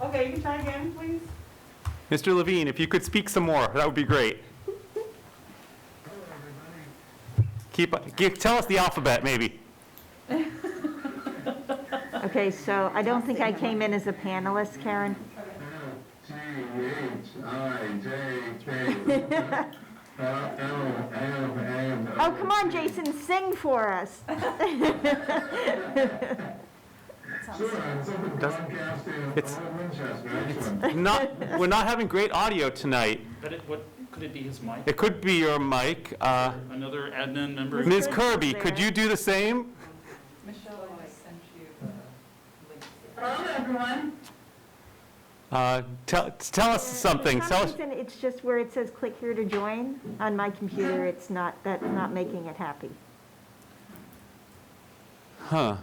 Okay, you can try again, please. Mr. Levine, if you could speak some more, that would be great. Keep, gi- tell us the alphabet, maybe. Okay, so I don't think I came in as a panelist, Karen. T H I J K L L M N O. Oh, come on, Jason, sing for us. Sure, it's up in Doncaster, It's- all of Winchester, excellent. Not, we're not having great audio tonight. But it, what, could it be his mic? It could be your mic. Uh, Another admin member? Ms. Kirby, could you do the same? Michelle, I sent you a link. Hello, everyone. Uh, Tell, tell us something, For tell some us, reason, It's just where it says click here to join. On my computer, it's not, that's not making it happy. huh,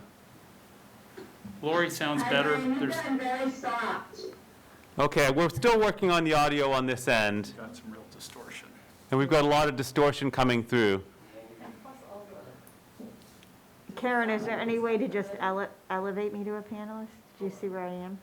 Lori sounds better. There's very soft. okay, we're still working on the audio on this end, got some real distortion. and we've got a lot of distortion coming through. Karen, is there any way to just ele- elevate me to a panelist? Do you see where I am?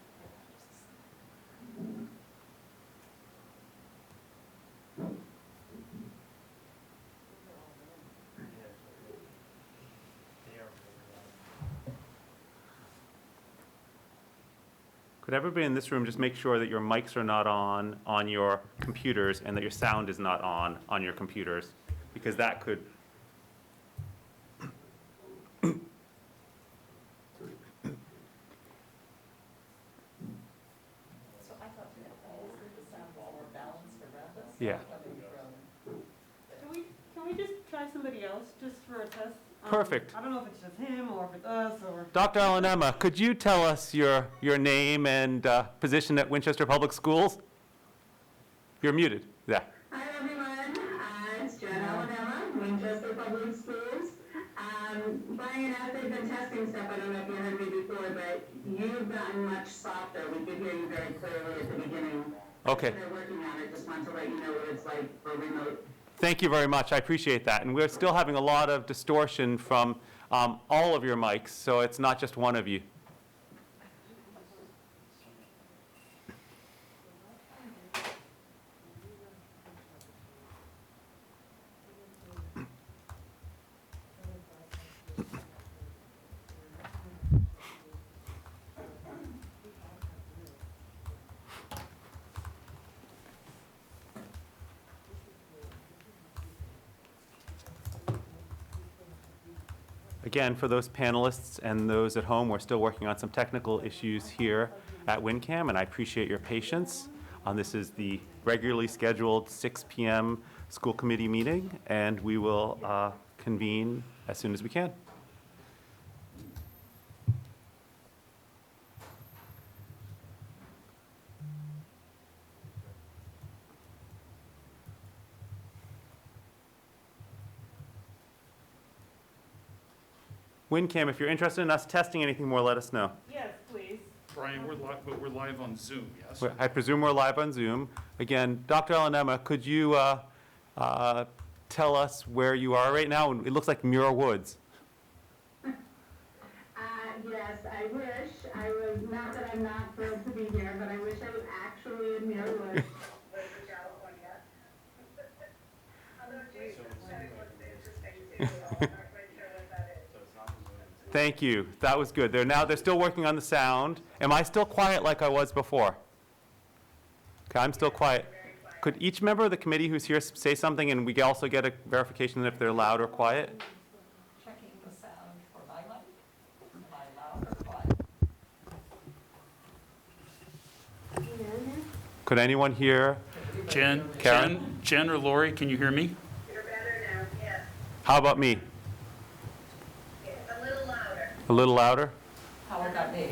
Could everybody in this room just make sure that your mics are not on, on your computers, and that your sound is not on, on your computers? Because that could, So I thought that all of the sounds were balanced around us. Yeah. Coming from- Can we, can we just try somebody else, just for a test? Um, Perfect. I don't know if it's just him, or if it's us, or, Dr. Alan Emma, could you tell us your, your name and uh, position at Winchester Public Schools? You're muted, yeah. Hi, everyone. Uh, it's Jen Alabama, Winchester Public Schools. Um, Brian, after the testing stuff, I don't know if you heard me before, but you've gotten much softer. We could hear you very clearly at the beginning. Okay. They're working on it. Just want to let you know what it's like for remote Thank you very much, I appreciate that. And we're still having a lot of distortion from um, all of your mics, so it's not just one of you. Again, for those panelists and those at home, we're still working on some technical issues here at WinCam, and I appreciate your patience. Um, This is the regularly scheduled 6 PM school committee meeting, and we will uh, convene as soon as we can. WinCam, if you're interested in us testing anything more, let us know. yes, please. Brian, we're live, but we're live on Zoom, yes? We're- I presume we're live on Zoom. Again, Dr. Alanema, could you uh, uh, tell us where you are right now? It looks like Muir Woods. Uh, yes, I wish I was, not that I'm not thrilled to be here, but I wish I was actually in Millwood. Thank you. That was good. They're now, they're still working on the sound. Am I still quiet like I was before? Okay, I'm still quiet. Could each member of the committee who's here s- say something and we can also get a verification if they're loud or quiet? Checking the sound for my mic. Am I loud or quiet? Could anyone here? Jen, Karen? Jen, Jen or Lori, can you hear me? You're better now, yes, How about me? a little louder. A little louder? How about me?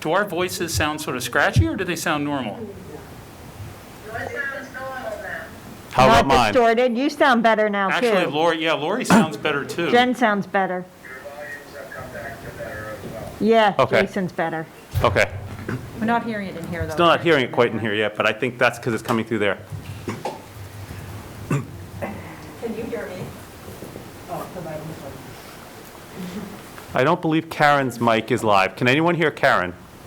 Do our voices sound sort of scratchy, or do they sound normal? What sounds normal now? How about Not mine? distorted. You sound better now, too. Actually, Lori, yeah, Lori sounds better, too. Jen sounds better. Your volumes have come back to better as well. Yeah, Okay. Jason's better. Okay. We're not hearing it in here, though. Still not hearing it quite in here yet, but I think that's because it's coming through there. Can you hear me? Oh, the mic is on. I don't believe Karen's mic is live. Can anyone hear Karen?